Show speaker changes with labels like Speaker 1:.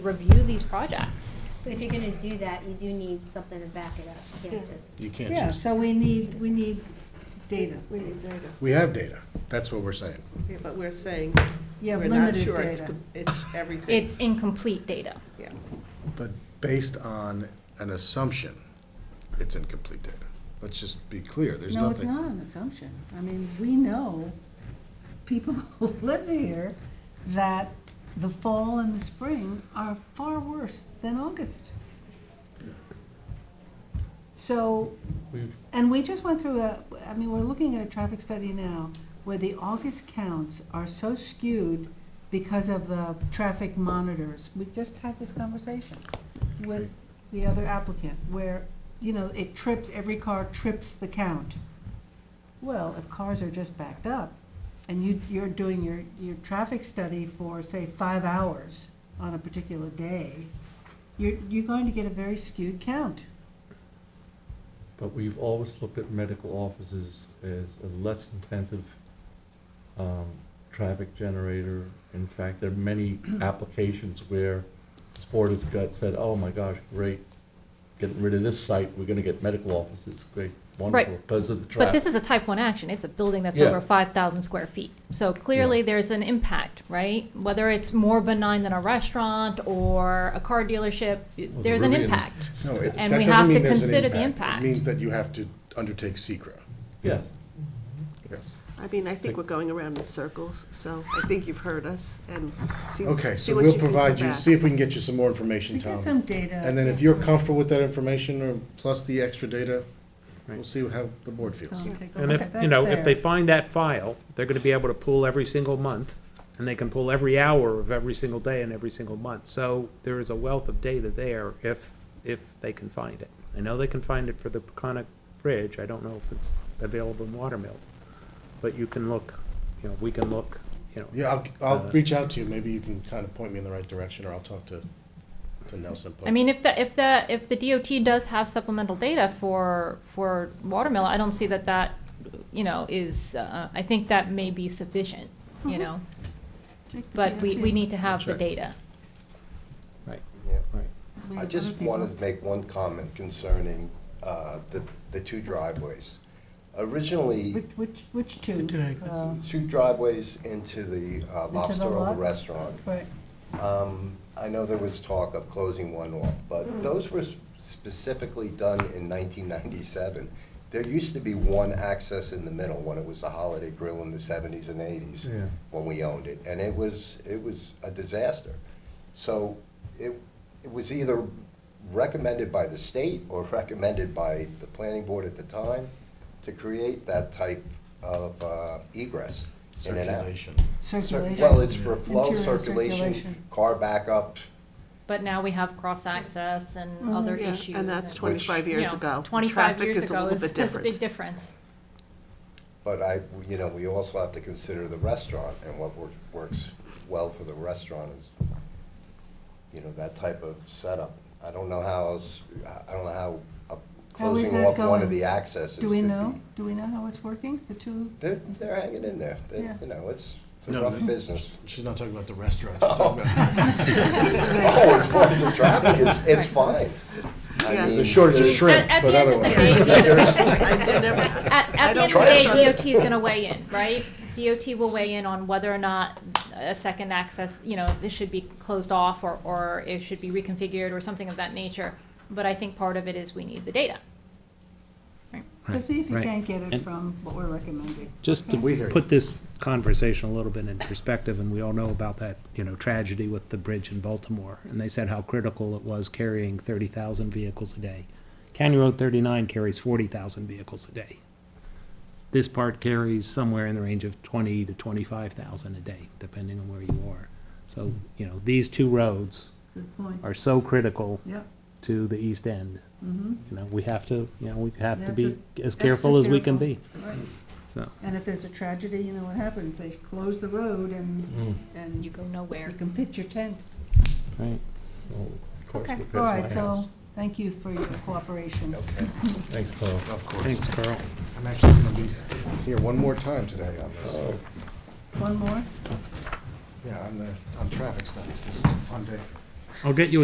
Speaker 1: review these projects.
Speaker 2: But if you're gonna do that, you do need something to back it up, you can't
Speaker 3: Yeah.
Speaker 2: just.
Speaker 4: You can't
Speaker 3: Yeah,
Speaker 4: just,
Speaker 3: so we need, we need data, we need data.
Speaker 4: we have data, that's what we're saying.
Speaker 5: Yeah, but we're saying,
Speaker 3: Yeah,
Speaker 5: we're not
Speaker 3: limited
Speaker 5: sure it's,
Speaker 3: data.
Speaker 5: com- it's everything.
Speaker 1: It's incomplete data.
Speaker 5: Yeah.
Speaker 4: But based on an assumption, it's incomplete data. Let's just be clear, there's
Speaker 3: No, it's
Speaker 4: nothing.
Speaker 3: not an assumption. I mean, we know, people who live here, that the fall and the spring are far worse than August. So,
Speaker 6: We've-
Speaker 3: and we just went through a, I mean, we're looking at a traffic study now where the August counts are so skewed because of the traffic monitors. We just had this conversation with the other applicant where, you know, it trips, every car trips the count. Well, if cars are just backed up and you, you're doing your, your traffic study for, say, five hours on a particular day, you're, you're going to get a very skewed count.
Speaker 6: But we've always looked at medical offices as a less intensive um, traffic generator. In fact, there are many applications where Sport has got said, oh my gosh, great, getting rid of this site, we're gonna get medical offices, great, wonderful, because of the traffic.
Speaker 1: But this is a type one action. It's a building that's
Speaker 6: Yeah.
Speaker 1: over five thousand square feet. So clearly, there's an impact, right? Whether it's more benign than a restaurant or a car dealership,
Speaker 6: Well,
Speaker 1: there's an
Speaker 6: Rivian's-
Speaker 1: impact.
Speaker 4: No, it-
Speaker 1: And
Speaker 4: that
Speaker 1: we
Speaker 4: doesn't
Speaker 1: have to
Speaker 4: mean there's an
Speaker 1: consider the
Speaker 4: It means
Speaker 1: impact.
Speaker 4: that you have to undertake secra.
Speaker 6: Yes,
Speaker 4: yes.
Speaker 5: I mean, I think we're going around in circles, so I think you've heard us and see.
Speaker 4: Okay,
Speaker 5: see
Speaker 4: so
Speaker 5: what
Speaker 4: we'll
Speaker 5: you can
Speaker 4: provide
Speaker 5: come
Speaker 4: you,
Speaker 5: back.
Speaker 4: see if we can get you some more
Speaker 3: We
Speaker 4: information,
Speaker 3: get
Speaker 4: Tom.
Speaker 3: some data.
Speaker 4: And then if you're comfortable with that information, or plus the extra data, we'll
Speaker 7: Right.
Speaker 4: see how the board feels.
Speaker 3: Tom, take a
Speaker 7: And
Speaker 3: look
Speaker 7: if,
Speaker 3: at-
Speaker 7: you know,
Speaker 3: that's
Speaker 7: if they
Speaker 3: fair.
Speaker 7: find that file, they're gonna be able to pull every single month, and they can pull every hour of every single day and every single month. So there is a wealth of data there if, if they can find it. I know they can find it for the Peconic Bridge, I don't know if it's available in Watermill, but you can look, you know, we can look, you know.
Speaker 4: Yeah, I'll, I'll
Speaker 7: Uh,
Speaker 4: reach out to you, maybe you can kind of point me in the right direction, or I'll talk to, to Nelson.
Speaker 1: I mean, if the, if the, if the DOT does have supplemental data for, for Watermill, I don't see that that, you know, is, uh, I think that may be sufficient, you
Speaker 5: Mm-hmm.
Speaker 1: know?
Speaker 3: Check the
Speaker 1: But we, we
Speaker 3: DOT.
Speaker 1: need to have the
Speaker 4: Check.
Speaker 1: data.
Speaker 7: Right,
Speaker 8: Yeah.
Speaker 7: right.
Speaker 3: We
Speaker 8: I
Speaker 3: have other
Speaker 8: just
Speaker 3: people.
Speaker 8: wanted to make one comment concerning uh, the, the two driveways.
Speaker 3: Which,
Speaker 8: Originally,
Speaker 3: which, which two? Uh,
Speaker 8: two driveways into the uh,
Speaker 3: the
Speaker 8: Lobster Roll
Speaker 3: lot?
Speaker 8: Restaurant.
Speaker 3: Right,
Speaker 8: Um, I know there was talk of closing one off, but those were specifically done in 1997. There used to be one access in the middle when it was the Holiday Grill in the 70s and 80s.
Speaker 6: Yeah.
Speaker 8: when we owned it, and it was, it was a disaster. So it, it was either recommended by the state or recommended by the planning board at the time to create that type of uh, egress in and out.
Speaker 4: Circulation.
Speaker 3: circulation.
Speaker 8: Well, it's for flow,
Speaker 3: Interior
Speaker 8: circulation,
Speaker 3: circulation.
Speaker 8: car backup,
Speaker 1: But now we have cross-access and
Speaker 3: Mhm.
Speaker 1: other
Speaker 5: Mm-hmm. Yeah,
Speaker 1: issues.
Speaker 5: And that's
Speaker 1: and-
Speaker 5: twenty-five
Speaker 1: you
Speaker 5: years
Speaker 1: know,
Speaker 5: ago.
Speaker 1: Twenty-five years
Speaker 5: Traffic is a
Speaker 1: ago
Speaker 5: little
Speaker 1: is, is
Speaker 5: bit
Speaker 1: a big
Speaker 5: different.
Speaker 1: difference.
Speaker 8: but I, you know, we also have to consider the restaurant and what wor- works well for the restaurant is, you know, that type of setup. I don't know how else, I- I don't know how uh,
Speaker 3: How is
Speaker 8: closing
Speaker 3: that
Speaker 8: off one
Speaker 3: going?
Speaker 8: of the accesses
Speaker 3: Do we
Speaker 8: could
Speaker 3: know,
Speaker 8: be-
Speaker 3: do we know how it's working, the two?
Speaker 8: They're, they're hanging in there. They-
Speaker 3: Yeah.
Speaker 8: You know, it's, it's a
Speaker 4: No,
Speaker 8: rough
Speaker 4: they-
Speaker 8: business.
Speaker 4: She's not talking about the restaurant, she's talking about,
Speaker 8: Oh, as far as the traffic, it's, it's fine. I
Speaker 5: Yeah.
Speaker 8: mean,
Speaker 4: there's a shortage of
Speaker 8: there's-
Speaker 4: shrimp,
Speaker 1: At- at
Speaker 4: but
Speaker 1: the end of the
Speaker 4: otherwise.
Speaker 1: day,
Speaker 5: I never-
Speaker 1: At, at the
Speaker 5: I
Speaker 1: end of
Speaker 8: don't
Speaker 1: the
Speaker 8: trust
Speaker 1: day, DOT is gonna weigh in, right? DOT will weigh in on whether or not a second access, you know, it should be closed off or, or it should be reconfigured or something of that nature. But I think part of it is we need the data.
Speaker 3: So see if you
Speaker 9: right.
Speaker 3: can't get it
Speaker 9: And-
Speaker 3: from what we're recommending.
Speaker 9: Just to
Speaker 4: We hear you.
Speaker 9: put this conversation a little bit in perspective, and we all know about that, you know, tragedy with the bridge in Baltimore, and they said how critical it was carrying thirty thousand vehicles a day. County Road thirty-nine carries forty thousand vehicles a day. This part carries somewhere in the range of twenty to twenty-five thousand a day, depending on where you are. So, you know, these two roads
Speaker 3: Good point.
Speaker 9: are so critical
Speaker 3: Yeah,
Speaker 9: to the east end.
Speaker 3: mm-hmm,
Speaker 9: You know, we have to, you know, we have
Speaker 3: We
Speaker 9: to
Speaker 3: have
Speaker 9: be as
Speaker 3: extra
Speaker 9: careful as we can
Speaker 3: careful.
Speaker 9: be,
Speaker 3: right.
Speaker 9: so.
Speaker 3: And if there's a tragedy, you know what happens, they close the road and,
Speaker 9: Mm.
Speaker 3: and
Speaker 1: You
Speaker 3: you
Speaker 1: go nowhere.
Speaker 3: can pitch your tent.
Speaker 9: Right.
Speaker 6: Well, of course,
Speaker 1: Okay.
Speaker 6: because
Speaker 3: All
Speaker 6: my
Speaker 3: right, so,
Speaker 6: house.
Speaker 3: thank you for your cooperation.
Speaker 6: Thanks, Paul.
Speaker 4: Of
Speaker 9: Thanks,
Speaker 4: course.
Speaker 9: Carl.
Speaker 4: I'm actually gonna be here one more time today on this.
Speaker 6: Oh,
Speaker 3: One more?
Speaker 4: Yeah, on the, on traffic studies, this is a fun day.
Speaker 9: I'll get you a